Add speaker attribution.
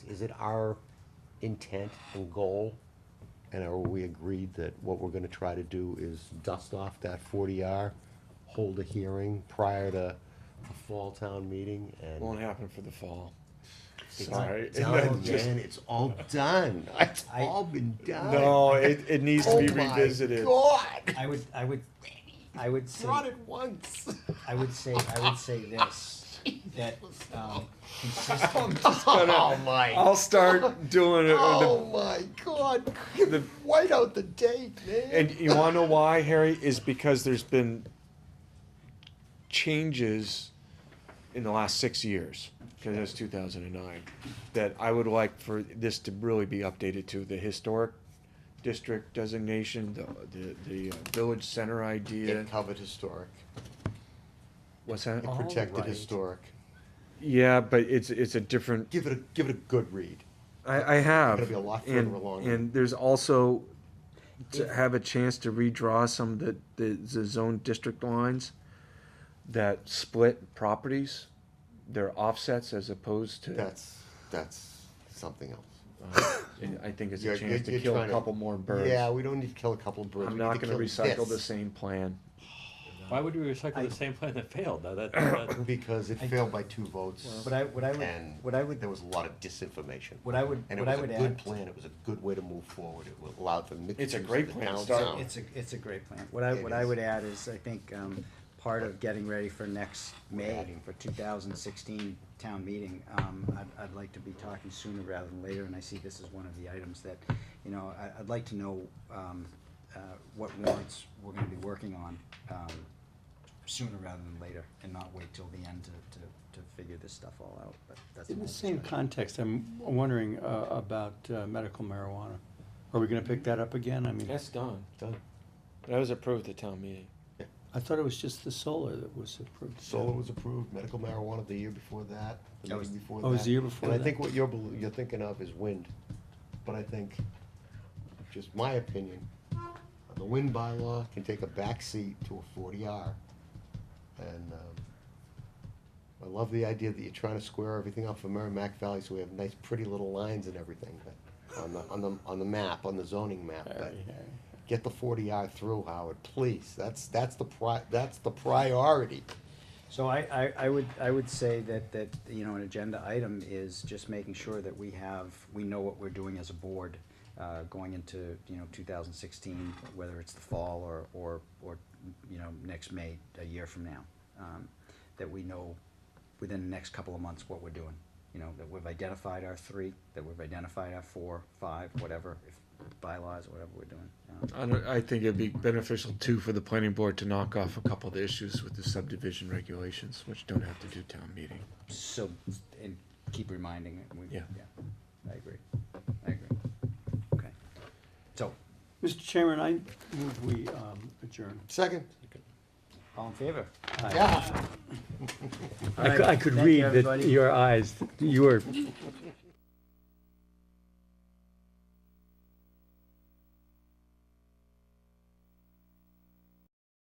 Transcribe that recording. Speaker 1: is it our intent and goal? And are we agreed that what we're gonna try to do is dust off that forty R, hold a hearing prior to the fall town meeting and?
Speaker 2: Won't happen for the fall.
Speaker 1: It's
Speaker 2: Sorry.
Speaker 1: done,
Speaker 2: Just-
Speaker 1: man, it's all done, it's
Speaker 3: I-
Speaker 1: all been done.
Speaker 2: No, it, it needs to be
Speaker 1: Oh my
Speaker 2: revisited.
Speaker 1: God,
Speaker 3: I would, I would, I would say,
Speaker 1: brought it once.
Speaker 3: I would say, I would say this, that, um, consistent,
Speaker 1: Oh my,
Speaker 2: I'll start doing it.
Speaker 1: oh my God, white out the date, man.
Speaker 2: And you want to know why, Harry? Is because there's been changes in the last six years, because that's 2009, that I would like for this to really be updated to the historic district designation, the, the, the uh, village center idea.
Speaker 4: It covered historic.
Speaker 2: What's that?
Speaker 4: It protected
Speaker 1: right.
Speaker 4: historic.
Speaker 2: Yeah, but it's, it's a different
Speaker 4: Give it a give it a good read.
Speaker 2: I, I have.
Speaker 4: Gonna be a lot further
Speaker 2: and,
Speaker 4: along.
Speaker 2: And there's also to have a chance to redraw some of the, the, the zone district lines that split properties, their offsets as opposed to.
Speaker 4: That's that's something else.
Speaker 2: and I think it's
Speaker 4: You're-
Speaker 2: a chance
Speaker 4: you're-
Speaker 2: to
Speaker 4: you're
Speaker 2: kill a
Speaker 4: trying to-
Speaker 2: couple more birds.
Speaker 4: Yeah, we don't need to kill a couple of birds.
Speaker 2: I'm
Speaker 4: we need
Speaker 2: not
Speaker 4: to
Speaker 2: gonna
Speaker 4: kill
Speaker 2: recycle the
Speaker 4: this,
Speaker 2: same plan.
Speaker 5: Why would we recycle
Speaker 3: I-
Speaker 5: the same plan that failed? Now that, that
Speaker 4: because it
Speaker 3: I-
Speaker 4: failed by two votes.
Speaker 3: what I, what I would,
Speaker 4: and
Speaker 3: what I would,
Speaker 4: there was a lot of disinformation.
Speaker 3: what I would,
Speaker 4: And it
Speaker 3: what I
Speaker 4: was a
Speaker 3: would
Speaker 4: good
Speaker 3: add.
Speaker 4: plan. It was a good way to move forward. It allowed for mixed
Speaker 2: It's a
Speaker 4: use
Speaker 2: great
Speaker 4: of the
Speaker 2: plan to
Speaker 4: town
Speaker 2: start
Speaker 4: sound.
Speaker 3: It's a, it's a great plan. What I,
Speaker 4: It
Speaker 3: what I
Speaker 4: is.
Speaker 3: would add is, I think, um, part of getting ready for next May, for two thousand sixteen town meeting, um, I'd, I'd like to be talking sooner rather than later, and I see this is one of the items that, you know, I, I'd like to know, um, uh, what warrants we're gonna be working on, um, sooner rather than later, and not wait till the end to, to, to figure this stuff all out, but that's.
Speaker 6: In
Speaker 3: my
Speaker 6: the same
Speaker 3: perspective.
Speaker 6: context, I'm wondering uh, about uh, medical marijuana. Are we gonna pick that up again? I mean,
Speaker 2: done.
Speaker 4: Done.
Speaker 2: That was approved at town meeting.
Speaker 6: I thought it was just the solar that was approved.
Speaker 4: Solar was approved. Medical marijuana the year before that. The
Speaker 3: That
Speaker 4: meeting
Speaker 3: was-
Speaker 4: before
Speaker 6: Oh, it was
Speaker 4: that.
Speaker 6: the year before
Speaker 4: And I
Speaker 6: that.
Speaker 4: think what you're bel- you're thinking of is wind, but I think, just my opinion, the wind bylaw can take a backseat to a forty R. And um, I love the idea that you're trying to square everything up for Merrimack Valley, so we have nice, pretty little lines and everything. But on the on the on the map, on the zoning map, but
Speaker 6: Harry, Harry.
Speaker 4: get the forty R through, Howard, please. That's that's the pri- that's the priority.
Speaker 3: So I, I, I would, I would say that, that, you know, an agenda item is just making sure that we have, we know what we're doing as a board, uh, going into, you know, two thousand sixteen, whether it's the fall or, or, or, you know, next May, a year from now. Um, that we know within the next couple of months what we're doing, you know, that we've identified our three, that we've identified our four, five, whatever, if bylaws, whatever we're doing. Um,
Speaker 2: I, don't, I think it'd be beneficial too for the planning board to knock off a couple of the issues with the subdivision regulations, which don't have to do town meeting.
Speaker 3: So, and keep reminding it, we, yeah,
Speaker 2: Yeah.
Speaker 3: I agree, I agree, okay. So,
Speaker 6: Mr. Chairman, I move we um, adjourn.
Speaker 4: Second.
Speaker 3: all in favor?
Speaker 6: Aye.
Speaker 4: Yeah.
Speaker 3: All right,
Speaker 7: I could, I could
Speaker 3: thank you,
Speaker 7: read that
Speaker 3: everybody.
Speaker 7: your eyes, you were